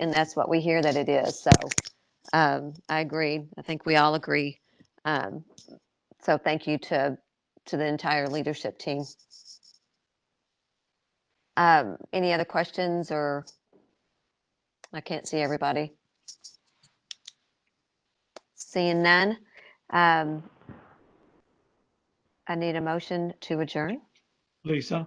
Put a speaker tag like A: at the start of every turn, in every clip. A: and that's what we hear that it is. So um, I agree. I think we all agree. Um, so thank you to to the entire leadership team. Um, any other questions or I can't see everybody. Seeing none. Um, I need a motion to adjourn.
B: Lisa,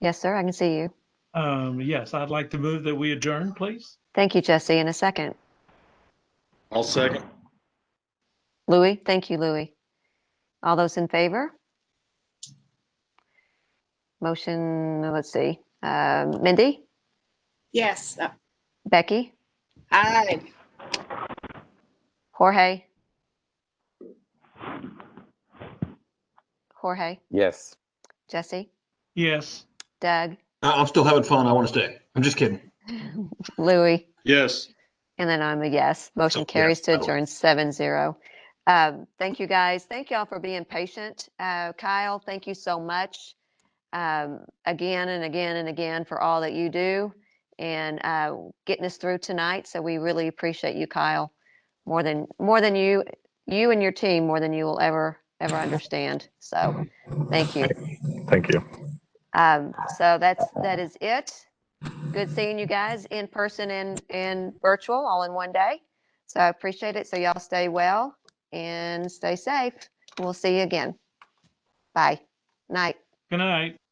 A: Yes, sir. I can see you.
B: um, yes, I'd like to move that we adjourn, please.
A: Thank you, Jesse. In a second.
C: I'll second.
A: Louis, thank you, Louis. All those in favor? Motion, let's see, um, Mindy,
D: Yes, uh,
A: Becky,
D: aye.
A: Jorge? Jorge,
E: Yes.
A: Jesse,
B: Yes,
A: Doug,
F: I- I'm still having fun. I want to stay. I'm just kidding.
A: Louis,
C: Yes.
A: and then I'm a yes. Motion
F: yes,
A: carries to
F: I will.
A: adjourn seven zero. Um, thank you, guys. Thank y'all for being patient. Uh, Kyle, thank you so much. um, again and again and again for all that you do and uh, getting us through tonight. So we really appreciate you, Kyle, more than more than you you and your team more than you will ever ever understand. So thank you.
E: Thank you.
A: Um, so that's that is it. Good seeing you guys in person and and virtual all in one day. So I appreciate it. So y'all stay well and stay safe. We'll see you again. Bye. Night.
B: good night.